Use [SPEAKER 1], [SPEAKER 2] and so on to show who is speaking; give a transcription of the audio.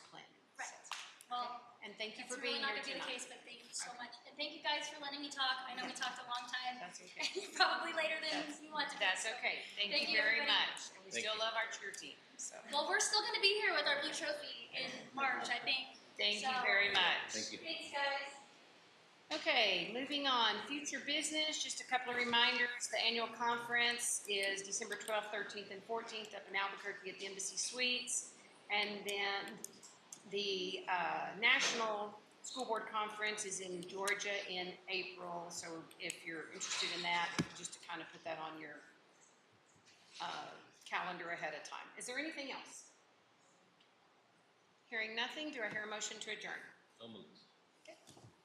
[SPEAKER 1] thank you
[SPEAKER 2] It's
[SPEAKER 1] for being
[SPEAKER 2] really not
[SPEAKER 1] here
[SPEAKER 2] gonna be the
[SPEAKER 1] tonight.
[SPEAKER 2] case, but thank you so much. And thank you guys for letting me talk. I know we talked a long time,
[SPEAKER 1] That's okay.
[SPEAKER 2] probably later than you wanted.
[SPEAKER 1] That's
[SPEAKER 2] so.
[SPEAKER 1] okay. Thank,
[SPEAKER 2] Thank
[SPEAKER 1] you
[SPEAKER 2] you,
[SPEAKER 1] very
[SPEAKER 2] everybody.
[SPEAKER 1] much. And we
[SPEAKER 3] Thank
[SPEAKER 1] still
[SPEAKER 3] you.
[SPEAKER 1] love our cheer team. So
[SPEAKER 2] Well, we're still gonna be here with our blue trophy in March, I think.
[SPEAKER 1] thank you
[SPEAKER 2] So-
[SPEAKER 1] very much.
[SPEAKER 3] Thank you.
[SPEAKER 2] Thanks, guys.
[SPEAKER 1] Okay, moving on. Future business, just a couple of reminders. The annual conference is December 12th, 13th, and 14th up in Albuquerque at the Embassy Suites. And then the uh, National School Board Conference is in Georgia in April. So if you're interested in that, just to kind of put that on your uh, calendar ahead of time. Is there anything else? Hearing nothing, do I hear a motion to adjourn?
[SPEAKER 3] So moved.